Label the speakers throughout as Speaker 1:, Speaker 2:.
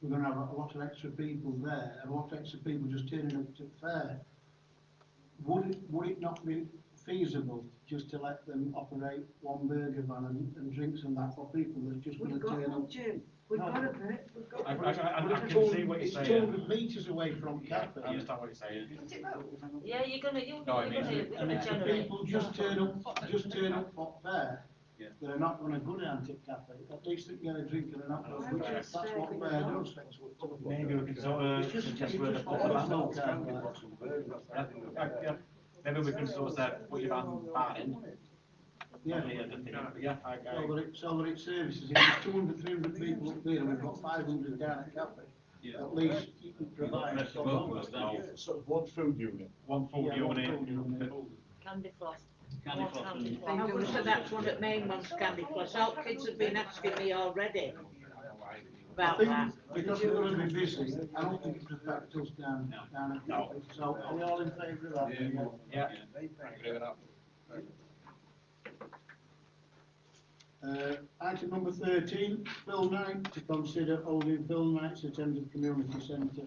Speaker 1: we're gonna have a lot of extra people there, a lot of extra people just turning up to fair. Would it, would it not be feasible just to let them operate one burger van and, and drinks and that for people that's just gonna
Speaker 2: We've got
Speaker 1: turn
Speaker 2: one,
Speaker 1: up?
Speaker 2: Jim, we've
Speaker 1: No.
Speaker 2: got a bit, we've got.
Speaker 3: I-
Speaker 2: one.
Speaker 3: I- I- I
Speaker 1: It's
Speaker 3: can see
Speaker 1: 200
Speaker 3: what you're
Speaker 1: It's two
Speaker 3: saying.
Speaker 1: hundred metres away from
Speaker 3: Yeah,
Speaker 1: Catford.
Speaker 3: I understand what you're saying.
Speaker 2: Is it rolled? Hang on.
Speaker 4: Yeah, you're gonna, you're, you're
Speaker 3: No, I
Speaker 4: gonna,
Speaker 3: mean,
Speaker 4: you're
Speaker 3: I mean,
Speaker 4: gonna
Speaker 1: And if the
Speaker 4: generate.
Speaker 1: people just turn up, just turn up for fair,
Speaker 3: Yeah.
Speaker 1: they're not gonna go to Antic Cafe, at least they can get a drink and an alcohol,
Speaker 3: Why
Speaker 1: which
Speaker 3: would
Speaker 1: is,
Speaker 2: you
Speaker 1: that's
Speaker 2: say
Speaker 1: what
Speaker 2: we
Speaker 1: fair
Speaker 2: don't?
Speaker 1: does.
Speaker 3: Maybe we can sort
Speaker 1: It's
Speaker 3: of
Speaker 1: just-
Speaker 3: suggest
Speaker 1: it's
Speaker 3: where the
Speaker 1: just
Speaker 3: put
Speaker 1: all
Speaker 3: the
Speaker 1: about
Speaker 3: van.
Speaker 1: milk.
Speaker 3: Yeah, yeah. Maybe we can sort of say, put your van bar in.
Speaker 1: Yeah,
Speaker 3: Yeah, the thing, yeah, I,
Speaker 1: so
Speaker 3: I,
Speaker 1: that it, so that it services, if there's two hundred, three hundred people up there, and we've got five hundred down at Cafe,
Speaker 3: yeah.
Speaker 1: at least you can provide.
Speaker 3: Mr. Wilkins, no.
Speaker 5: Sort of one food unit.
Speaker 3: One full
Speaker 1: Yeah, one full
Speaker 3: unit.
Speaker 1: unit.
Speaker 4: Candy floss.
Speaker 6: Candy
Speaker 4: More
Speaker 6: floss
Speaker 4: candy
Speaker 6: and-
Speaker 4: floss.
Speaker 7: I wish that that's what it meant, once Candy Floss. Our kids have been asking me already
Speaker 1: I
Speaker 7: about
Speaker 4: uh,
Speaker 7: that.
Speaker 1: think, because we're gonna be busy, I don't think it affects us down, down at
Speaker 3: No.
Speaker 1: Cafe, so are we all in favour of that?
Speaker 5: Yeah.
Speaker 3: Yeah.
Speaker 1: Uh, item number thirteen, Bill Night to consider holding Bill Night's attended community centre.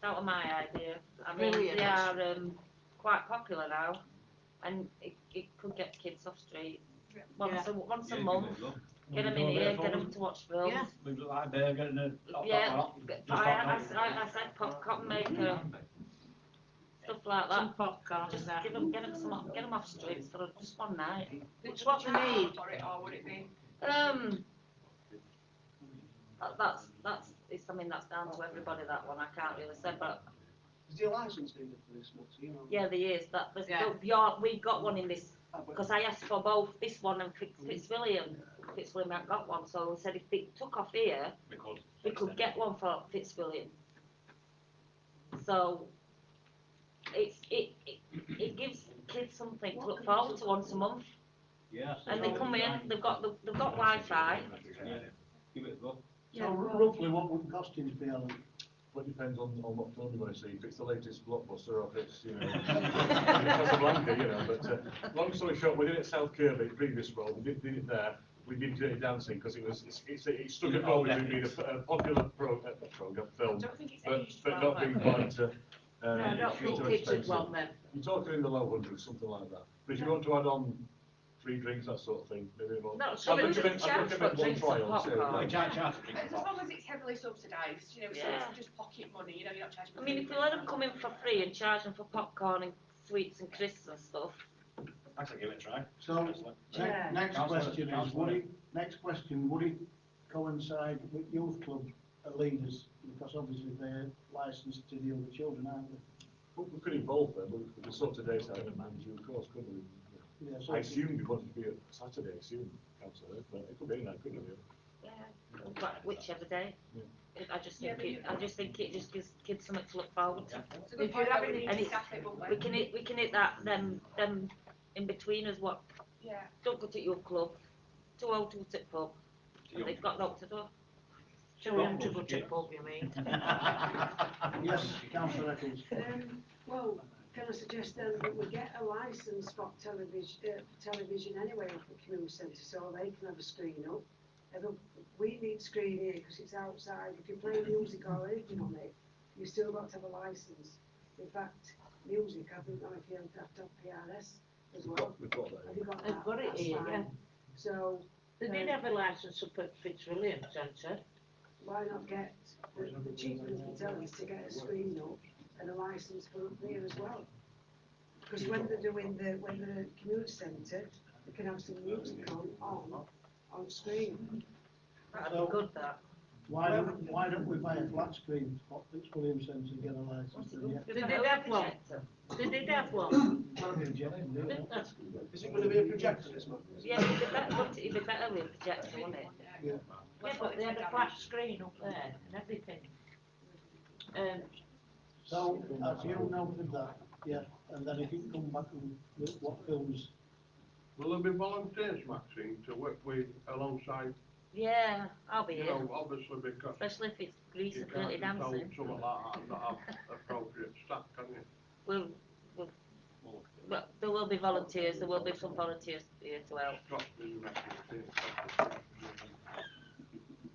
Speaker 4: That was my idea. I mean,
Speaker 7: Brilliant.
Speaker 4: they are, um, quite popular now and it, it could get kids off street. Once a, once a month, get them in here, get them to watch films.
Speaker 7: Yeah.
Speaker 3: We've got that there, getting a.
Speaker 4: Yeah, I, I, I, I said popcorn maker, stuff like that.
Speaker 7: Some popcorn and
Speaker 4: Just
Speaker 7: that.
Speaker 4: give them, get them some, get them off streets for just one night.
Speaker 2: Would
Speaker 4: Which
Speaker 2: you
Speaker 4: what they
Speaker 2: charge
Speaker 4: need.
Speaker 2: For it, or would it be?
Speaker 4: Um, that, that's, that's, it's something that's down to everybody, that one, I can't really say, but,
Speaker 1: Is your licence needed for this much, you know? uh,
Speaker 4: yeah, there is, that, there's,
Speaker 7: Yeah.
Speaker 4: yeah, we got one in this, because I asked for both this one and Fitz, Fitzwilliam. Fitzwilliam hadn't got one, so I said if it took off here,
Speaker 3: We could.
Speaker 4: we could get one for Fitzwilliam. So, it's, it, it, it gives kids something to look forward to once a month,
Speaker 6: Yes.
Speaker 4: and they come in, they've got, the- they've got Wi-Fi,
Speaker 6: Give it a go.
Speaker 1: So roughly what would costings be, Alan?
Speaker 5: Well, it depends on, on what film you want to see, if it's the latest blockbuster or if it's, you know, Casablanca, you know, but, uh, long story short, we did it at South Kirby, the previous role, we did, did it there, we did Dirty Dancing, because it was, it's, it's, it struck a chord with being a, a popular pro, uh, program, film,
Speaker 2: don't think it's
Speaker 5: but, but not being quite, uh, uh,
Speaker 7: No, I don't
Speaker 5: too
Speaker 7: think kids would
Speaker 5: expensive.
Speaker 7: want them.
Speaker 5: You're talking in the low hundreds, something like that, but if you want to add on free drinks, that sort of thing, maybe more.
Speaker 4: No,
Speaker 5: I'd
Speaker 4: so we
Speaker 5: recommend-
Speaker 4: wouldn't
Speaker 5: I'd
Speaker 4: charge
Speaker 5: recommend
Speaker 4: for
Speaker 5: one
Speaker 4: drinks and
Speaker 5: trial, so- uh,
Speaker 4: popcorn.
Speaker 3: I can't charge for
Speaker 2: As
Speaker 3: drinks.
Speaker 2: long as it's heavily subsidised, you know, so
Speaker 4: Yeah.
Speaker 2: it's just pocket money, you know, you're not charging.
Speaker 4: I mean, if we let them come in for free and charge them for popcorn and sweets and crisps and stuff,
Speaker 3: Actually, give it a try.
Speaker 1: So,
Speaker 2: Yeah.
Speaker 1: ne- next
Speaker 3: Councillor-
Speaker 1: question is,
Speaker 3: councillor.
Speaker 1: would it, next question, would it coincide with youth club leaders? Because obviously they're licensed to deal with children, aren't they?
Speaker 5: We we could involve them, but we could sort of days out and manage you, of course, couldn't we?
Speaker 1: Yeah,
Speaker 5: I
Speaker 1: so-
Speaker 5: assumed it wanted to be a Saturday, I assume, councillor, but it could be any night, couldn't it? really?
Speaker 4: yeah, but whichever day.
Speaker 5: Yeah.
Speaker 4: It- I just
Speaker 2: Yeah,
Speaker 4: think it, I just think it just gives kids something to look forward to.
Speaker 2: It's a good
Speaker 7: If
Speaker 2: point,
Speaker 7: you're
Speaker 2: that we
Speaker 7: having
Speaker 2: need
Speaker 4: any-
Speaker 2: to staff it, wouldn't
Speaker 4: We
Speaker 2: we?
Speaker 4: can hit, we can hit that, them, them in between us, what,
Speaker 2: Yeah.
Speaker 4: don't go to your club, too old to go to the pub, and they've got locked door.
Speaker 7: Children to go to pub, you mean?
Speaker 1: Yes, councillor Eccles.
Speaker 8: Um, well, can I suggest then that we get a licence for television, uh, for television anyway for the community centre, so they can have a screen up. And then we need screen here because it's outside, if you play music or anything on it, you still got to have a licence. In fact, music, I think, or if you have to have PRS as
Speaker 5: We've
Speaker 8: well,
Speaker 5: got, we've got that.
Speaker 8: have you got
Speaker 7: They've
Speaker 8: that?
Speaker 7: got it
Speaker 8: That's
Speaker 7: here,
Speaker 8: fine. So, um,
Speaker 7: They did have a licence up at Fitzwilliam Centre.
Speaker 8: why not get the the chief of the tell us to get a screen up and a license for up there as well? Because when they're doing the, when the community centre, they can have some music on, on, on screen.
Speaker 4: That'd be good, that.
Speaker 1: Why don't, why don't we buy a flat screen for Fitzwilliam Centre and get a license? and
Speaker 7: They did have one. They did have one.
Speaker 1: yeah-
Speaker 7: I think that's-
Speaker 1: Is it gonna be a projector this month?
Speaker 4: Yeah, it'd be better, wouldn't it? it'd be better with a projector, wouldn't it?
Speaker 7: Yeah, but they had a flat screen up there and everything. Um,
Speaker 1: So, as you noted that, yeah, and then if you come back and look what films,
Speaker 9: Will there be volunteers, Maxine, to work with alongside,
Speaker 4: Yeah, I'll be
Speaker 9: you
Speaker 4: here,
Speaker 9: know, obviously because
Speaker 4: especially if it's grease
Speaker 9: you
Speaker 4: and
Speaker 9: can't
Speaker 4: dirty
Speaker 9: control
Speaker 4: dancing.
Speaker 9: someone like that, not have appropriate staff, can you?
Speaker 4: We'll, we'll, but there will be volunteers, there will be some volunteers here to help.
Speaker 9: Trust me, you make it.